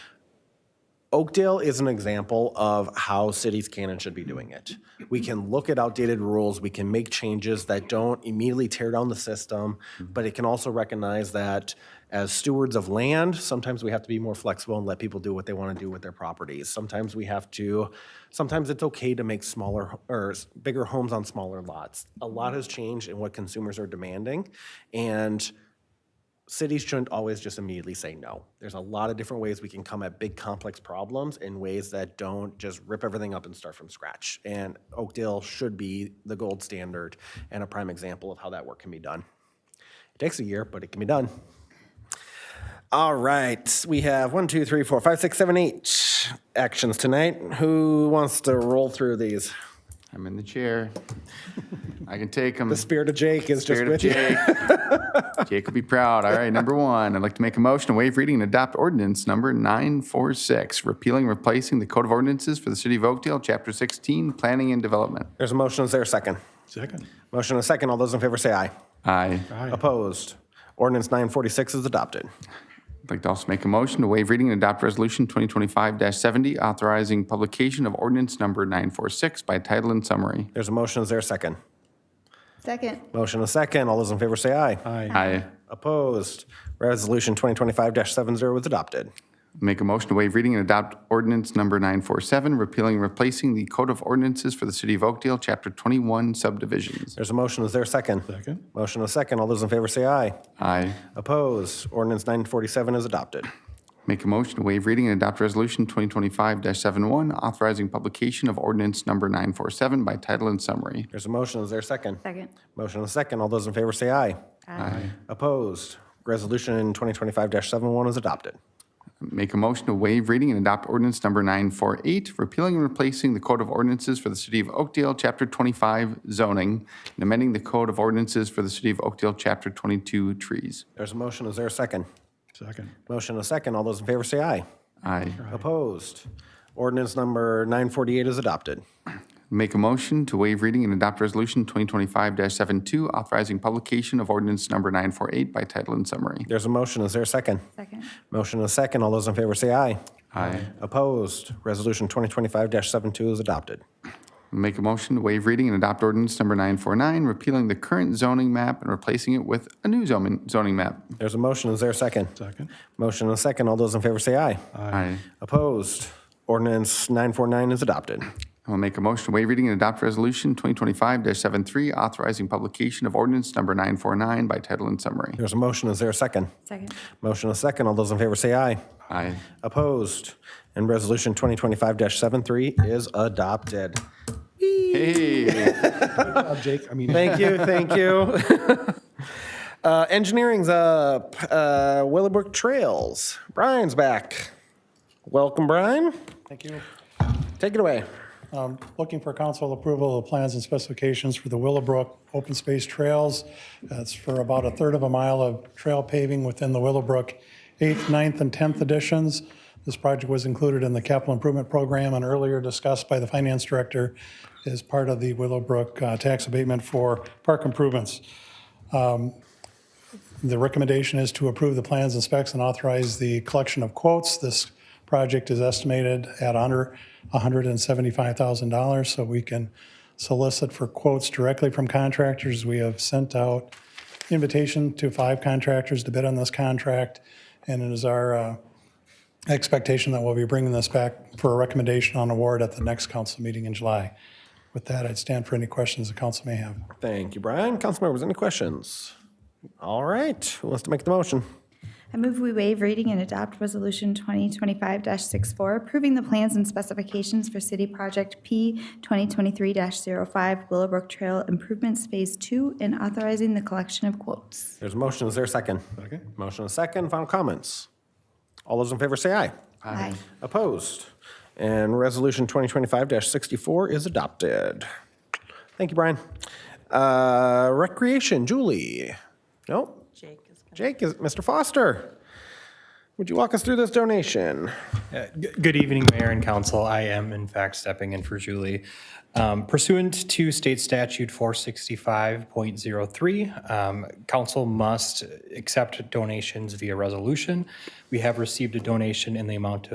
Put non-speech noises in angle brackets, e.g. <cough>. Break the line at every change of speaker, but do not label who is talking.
Oakdale is an example of how cities can and should be doing it. We can look at outdated rules, we can make changes that don't immediately tear down the system, but it can also recognize that as stewards of land, sometimes we have to be more flexible and let people do what they want to do with their properties. Sometimes we have to, sometimes it's okay to make smaller or s- bigger homes on smaller lots. A lot has changed in what consumers are demanding, and cities shouldn't always just immediately say no. There's a lot of different ways we can come at big complex problems in ways that don't just rip everything up and start from scratch. And Oakdale should be the gold standard and a prime example of how that work can be done. It takes a year, but it can be done. All right, we have one, two, three, four, five, six, seven, eight actions tonight. Who wants to roll through these?
I'm in the chair. I can take them.
The <laughs> spirit of Jake is just
Spirit of
with you.
Jake. Jake will be proud. All right, number one, I'd like to make a motion to waive reading and adopt ordinance number 946, repealing and replacing the Code of Ordinances for the City of Oakdale, Chapter 16, Planning and Development.
There's a motion, is there a second?
Second.
Motion and a second, all those in favor say aye.
Aye.
Opposed? Ordinance 946 is adopted.
I'd like to also make a motion to waive reading and adopt Resolution 2025-70, authorizing publication of ordinance number 946 by title and summary.
There's a motion, is there a second?
Second.
Motion and a second, all those in favor say aye.
Aye.
Aye.
Opposed? Resolution 2025-70 was adopted.
Make a motion to waive reading and adopt ordinance number 947, repealing and replacing the Code of Ordinances for the City of Oakdale, Chapter 21 subdivisions.
There's a motion, is there a second?
Second.
Motion and a second, all those in favor say aye.
Aye.
Opposed? Ordinance 947 is adopted.
Make a motion to waive reading and adopt Resolution 2025-71, authorizing publication of ordinance number 947 by title and summary.
There's a motion, is there a second?
Second.
Motion and a second, all those in favor say aye. Aye. Opposed? Resolution 2025-71 is adopted.
Make a motion to waive reading and adopt ordinance number 948, repealing and replacing the Code of Ordinances for the City of Oakdale, Chapter 25 zoning, and amending the Code of Ordinances for the City of Oakdale, Chapter 22 trees.
There's a motion, is there a second?
Second.
Motion and a second, all those in favor say aye.
Aye.
Opposed? Ordinance number 948 is adopted.
Make a motion to waive reading and adopt Resolution 2025-72, authorizing publication of ordinance number 948 by title and summary.
There's a motion, is there a second?
Second.
Motion and a second, all those in favor say aye.
Aye.
Opposed? Resolution 2025-72 is adopted.
Make a motion to waive reading and adopt ordinance number 949, repealing the current zoning map and replacing it with a new zoning, zoning map.
There's a motion, is there a second?
Second.
Motion and a second, all those in favor say aye.
Aye.
Opposed? Ordinance 949 is adopted.
I'll make a motion to waive reading and adopt resolution 2025-73, authorizing publication of ordinance number 949 by title and summary.
There's a motion, is there a second?
Second.
Motion and a second, all those in favor say aye.
Aye.
Opposed? And Resolution 2025-73 is adopted.
Hey,
Jake, I mean,
Thank you, thank
<laughs>
you. Uh, Engineering's up, Uh, Willowbrook Trails, Brian's back. Welcome, Brian.
Thank you.
Take it away.
Um, Looking for council approval of the plans and specifications for the Willowbrook Open Space Trails. That's for about a third of a mile of trail paving within the Willowbrook 8th, 9th, and 10th editions. This project was included in the capital improvement program and earlier discussed by the finance director as part of the Willowbrook uh, tax abatement for park improvements. The recommendation is to approve the plans and specs and authorize the collection of quotes. This project is estimated at under $175,000, so we can solicit for quotes directly from contractors. We have sent out invitation to five contractors to bid on this contract, and it is our uh, expectation that we'll be bringing this back for a recommendation on award at the next council meeting in July. With that, I'd stand for any questions the council may have.
Thank you, Brian. Council members, any questions? All right, who wants to make the motion?
I move we waive reading and adopt Resolution 2025-64, approving the plans and specifications for City Project P 2023-05 Willowbrook Trail Improvements Phase 2 and authorizing the collection of quotes.
There's a motion, is there a second?
Second.
Motion and a second, final comments. All those in favor say aye.
Aye.
Opposed? And Resolution 2025-64 is adopted. Thank you, Brian. Uh, Recreation, Julie. Nope.
Jake is going
Jake is, Mr. Foster, would you walk us through this donation?
G- Good evening, Mayor and Council. I am in fact stepping in for Julie. Um, Pursuant to State Statute 465.03, um, council must accept donations via resolution. We have received a donation in the amount of.